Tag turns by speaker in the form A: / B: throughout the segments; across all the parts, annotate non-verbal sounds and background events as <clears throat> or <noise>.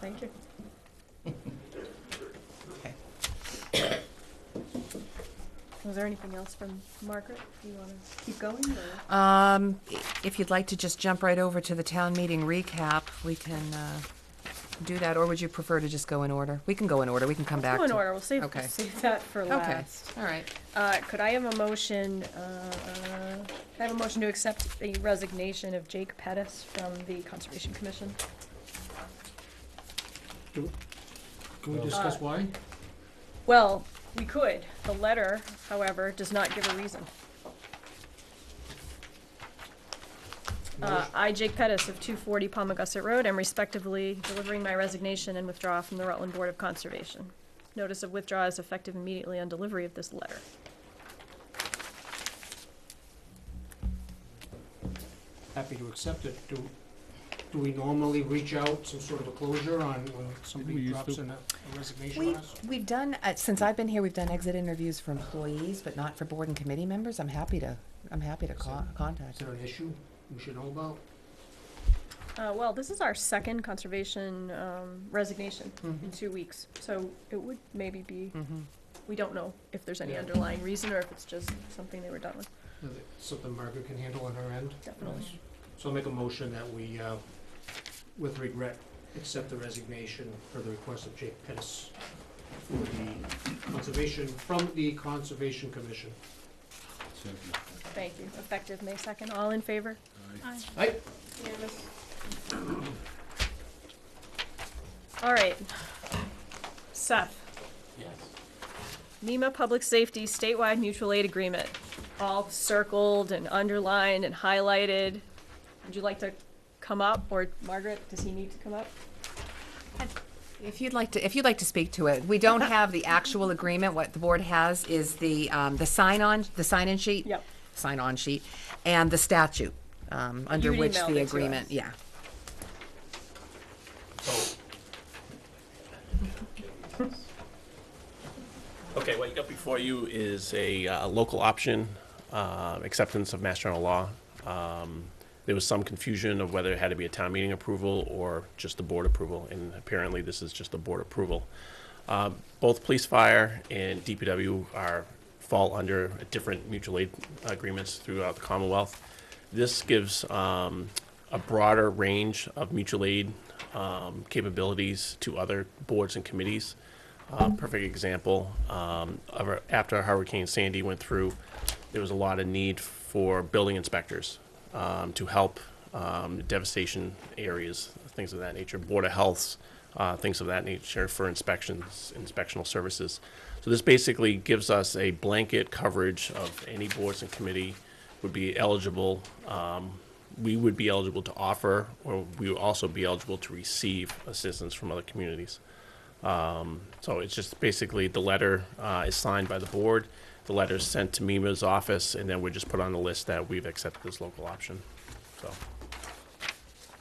A: Thank you.
B: Okay.
A: Was there anything else from Margaret? Do you want to keep going or?
B: Um, i- if you'd like to just jump right over to the town meeting recap, we can, uh, do that, or would you prefer to just go in order? We can go in order, we can come back
A: Go in
B: to-
A: order, we'll save,
B: Okay.
A: save that for
B: Okay,
A: last.
B: all right.
A: Uh, could I have a motion, uh, uh, could I have a motion to accept the resignation of Jake Pettis from the Conservation Commission?
C: Can we
D: Well-
C: discuss
A: Uh,
C: why?
A: Well, we could. The letter, however, does not give a reason. Uh, I, Jake Pettis of 240 Palmagussit Road, am respectively delivering my resignation and withdraw from the Rutland Board of Conservation. Notice of withdrawal is effective immediately on delivery of this letter.
C: Happy to accept it. Do, do we normally reach out some sort of a closure on when
D: we
C: somebody
D: used
C: drops
D: to?
C: in a a resignation
B: We,
C: on us?
B: we've done, uh, since I've been here, we've done exit interviews for employees, but not for board and committee members. I'm happy to, I'm happy to co-
C: Is
B: contact.
C: there an issue we should know about?
A: Uh, well, this is our second conservation um, resignation in two weeks, so it would maybe be,
B: Mm-hmm.
A: we don't know if there's any
C: Yeah.
A: underlying reason or if it's just something they were done with,
C: Is it Something Margaret can handle on her end?
A: definitely.
C: So I'll make a motion that we, uh, with regret, accept the resignation for the request of Jake Pettis for the conservation, from the Conservation Commission.
A: Thank you. Effective May second. All in favor?
C: Aye.
A: All right. Seth,
C: Yes.
A: NEMA Public Safety Statewide Mutual Aid Agreement, all circled and underlined and highlighted. Would you like to come up, or Margaret, does he need to come up?
B: If you'd like to, if you'd like to speak to it,
A: <laughs>
B: we don't have the actual agreement. What the board has is the, um, the sign-on, the sign-in sheet.
A: Yep.
B: Sign-on sheet, and the statute, um, under
A: You'd
B: which
A: emailed it
B: the
A: to
B: agreement,
A: us.
B: yeah.
E: Okay, what you got before you is a uh, local option, uh, acceptance of Mass General Law. Um, There was some confusion of whether it had to be a town meeting approval or just the board approval, and apparently this is just the board approval. Um, Both police, fire, and DPW are, fall under different mutual aid agreements throughout the Commonwealth. This gives um, a broader range of mutual aid um, capabilities to other boards and committees. Uh, perfect example, um, of our- after Hurricane Sandy went through, there was a lot of need for building inspectors um, to help um, devastation areas, things of that nature, Board of Healths, uh, things of that nature for inspections, inspectional services. So this basically gives us a blanket coverage of any boards and committee would be eligible, um, we would be eligible to offer, or we would also be eligible to receive assistance from other communities. So it's just basically the letter uh, is signed by the board, the letter is sent to Mima's office, and then we're just put on the list that we've accepted this local option. So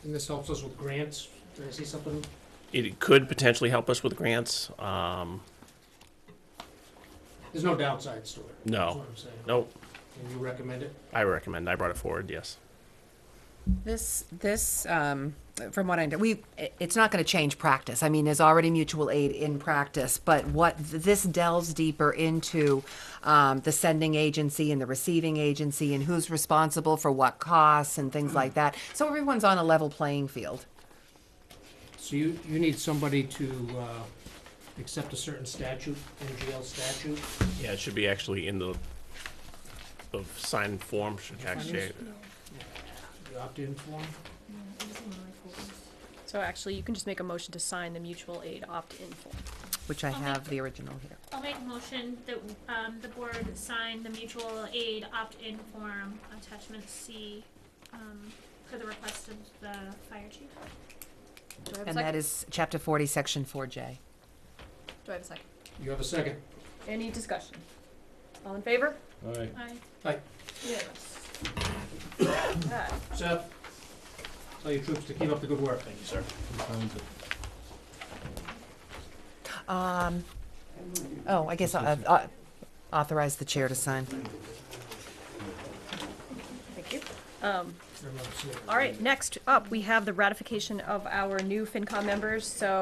C: And this helps us with grants. Did I see something?
E: it could potentially help us with grants. Um,
C: There's no downsides to it.
E: No.
C: That's what I'm saying.
E: Nope,
C: And you recommend it?
E: I recommend, I brought it forward, yes.
B: This, this, um, from what I know, we, i- it's not gonna change practice. I mean, there's already mutual aid in practice, but what, th- this delves deeper into, um, the sending agency and the receiving agency and who's responsible for what costs and things
A: <clears throat>
B: like that. So everyone's on a level playing field.
C: So you, you need somebody to, uh, accept a certain statute, NGL statute?
E: Yeah, it should be actually in the, the signed form should actually,
C: You opt-in form?
A: So actually, you can just make a motion to sign the mutual aid opt-in form.
B: Which I
F: Okay.
B: have the original here.
F: I'll make a motion that, um, the board sign the mutual aid opt-in form attachment C, um, for the request of the fire chief.
A: Do I have a
B: And that
A: second?
B: is chapter forty, section four J.
A: Do I have a second?
C: You have a second?
A: Any discussion? All in favor?
D: Aye.
F: Aye.
A: Yes. <coughs>
C: Seth? Tell your troops to keep up the good work. Thank you, sir.
B: Um, oh, I guess I, I authorize the chair to sign.
A: Thank you. Um, all right, next up, we have the ratification of our new FinCom members, so